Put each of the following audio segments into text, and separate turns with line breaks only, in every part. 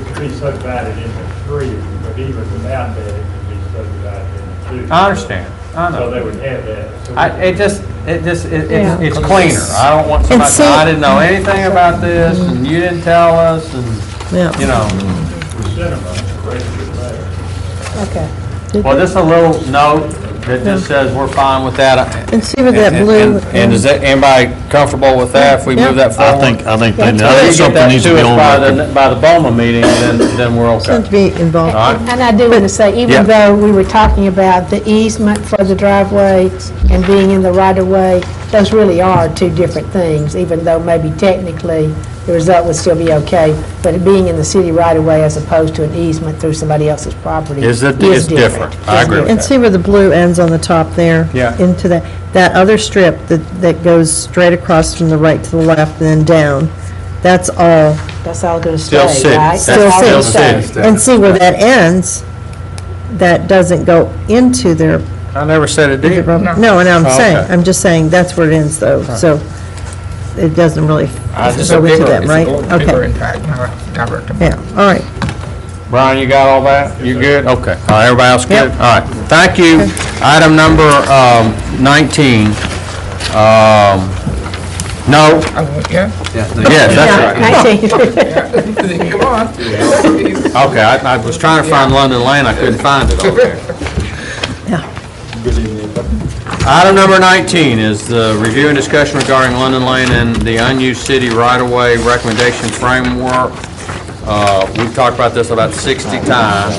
could be subdivided into three, but even without that, it could be subdivided into two.
I understand. I know.
So they would have that. So
I,
we-
it just, it just, it,
Yeah.
it's, it's cleaner. I don't want somebody,
And
to say, I
see-
didn't know anything about this, and you didn't tell us, and, you
Yeah,
know.
The cinema, the rest is there.
Okay.
Well, just a little note that just says we're fine with that.
and see with that blue.
And- And is that, anybody comfortable with that, if we move that
I
forward?
think, I think they- I
That's
If Oh.
think
you get
something
that
needs to be
to us
on
by the,
record.
by the Boma meeting, then, then we're
Seems to
okay.
be involved.
All right.
And I do want to say,
Yeah.
even though we were talking about the easement for the driveway and being in the right-of-way, those really are two different things, even though maybe technically the result would still be okay, but being in the city right-of-way as opposed to an easement through somebody else's property is
Is it-
different.
it's different. I
Is
agree with
different.
And see where the blue ends on the top there?
Yeah.
Into that, that other strip that, that goes straight across from the right to the left and then down. That's all
That's all going to stay,
Still
right?
city. That's
still
all
still
gonna stay.
city.
And see where that ends, that doesn't go into their,
I never said it did.
no, and I'm
Oh,
saying,
okay.
I'm just saying, that's where it ends though, so it doesn't really
I just-
go into
bigger-
them,
it's
right?
It's a bigger
Okay,
impact, not a direct
yeah, all right.
Brian, you got all that? You good? Okay. All right, everybody else good?
Yep.
All right, thank you. Item number um, 19. Um, No,
impact. Yeah?
yes, that's right.
Come on.
Okay, I I was trying to find London Lane, I couldn't find it over there. Item number 19 is the review and discussion regarding London Lane and the unused city right-of-way recommendation framework. Uh, We've talked about this about 60 times.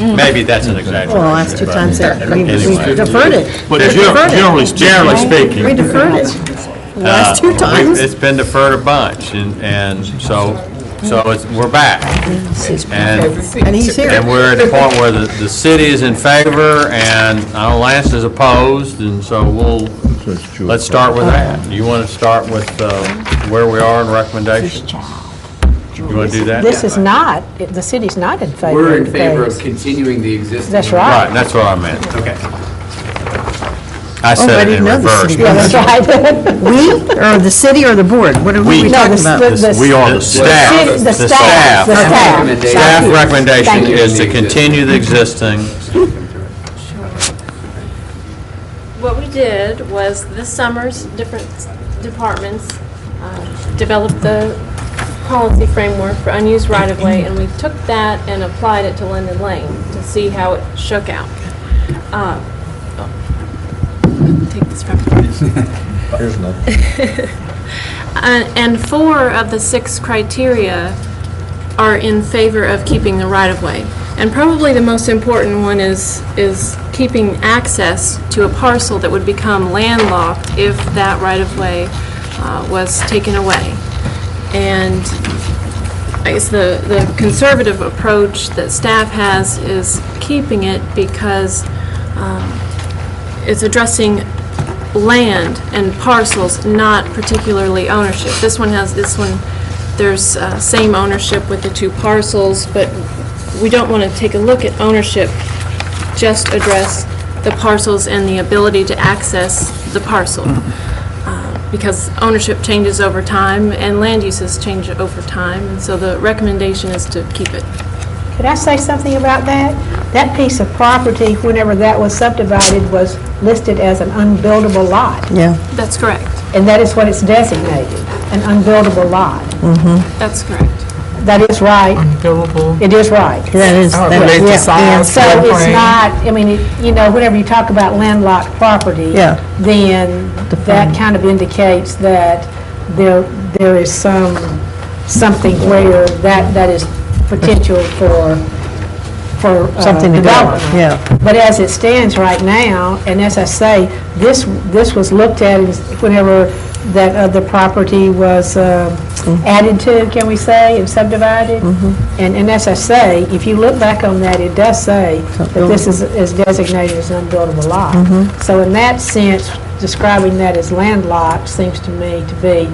Maybe that's an exaggeration.
Well, last two
but-
times that, we we
Anyway.
deferred it.
But
We
gen-
deferred it.
generally speaking.
Generally speaking.
We deferred it, last two
Uh,
times.
we- It's been deferred a bunch, and, and so, so it's, we're back. And,
and he's
and
here.
we're at a point where the, the city is in favor, and I know Lance is opposed, and so we'll, let's start with that. Do you want to start with uh, where we are in recommendations? You want to do that?
This is not, the city's not in favor.
We're in
of
favor of
things.
continuing the existing.
That's
Right,
right.
that's what I meant.
Okay.
I
Oh, I
said it in
didn't know the
reverse.
city.
Yeah, that's right.
We, or the city or the board, what are
We.
we
No,
talking
the-
about?
the-
This- We are the staff.
The staff, the staff.
Recommendation.
Staff
Thank you.
recommendation
Thank you.
is to continue the existing.
What we did was this summer's different departments uh, developed the policy framework for unused right-of-way, and we took that and applied it to Linden Lane to see how it shook out. Uh, oh, Take this from and Uh, and four of the six criteria are in favor of keeping the right-of-way. And probably the most important one is, is keeping access to a parcel that would become landlocked if that right-of-way uh, was taken away. And I guess the, the conservative approach that staff has is keeping it because um, it's addressing land and parcels, not particularly ownership. This one has, this one, there's uh, same ownership with the two parcels, but we don't want to take a look at ownership, just address the parcels and the ability to access the parcel, Uh, because ownership changes over time and land uses change over time, and so the recommendation is to keep it.
Could I say something about that? That piece of property, whenever that was subdivided, was listed as an unbuildable lot,
Yeah,
That's correct.
and that is what it's designated, an unbuildable lot.
That's correct.
That is right,
Unbillable.
it is right.
that is,
Oh,
that-
related to
yeah,
size.
yeah.
So it's not, I mean, it- you know, whenever you talk about landlocked property,
Yeah.
then that kind of indicates that there, there is some, something where that, that is potential for, for uh,
Something to go,
development.
yeah.
But as it stands right now, and as I say, this, this was looked at as whenever that other property was uh, added to, can we say, and subdivided? And, and as I say, if you look back on that, it does say that this is, is designated as an unbuildable lot. So in that sense, describing that as landlocked seems to me to be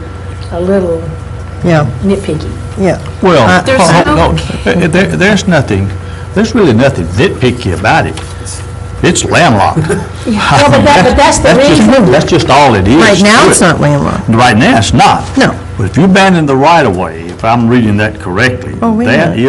a little
yeah,
nitpicky.
yeah.
Uh,
Well,
There's
hold-
no-
hold- hold. Uh, there- there's nothing, there's really nothing nitpicky about it. It's landlocked.
Yeah, but that, but that's the
That's just-
reason.
That's just all it is.
Right
to
now,
it.
it's not landlocked.
Right now, it's not.
No.
But if you abandon the right-of-way, if I'm reading that correctly,
Oh, wait a
that
minute.
is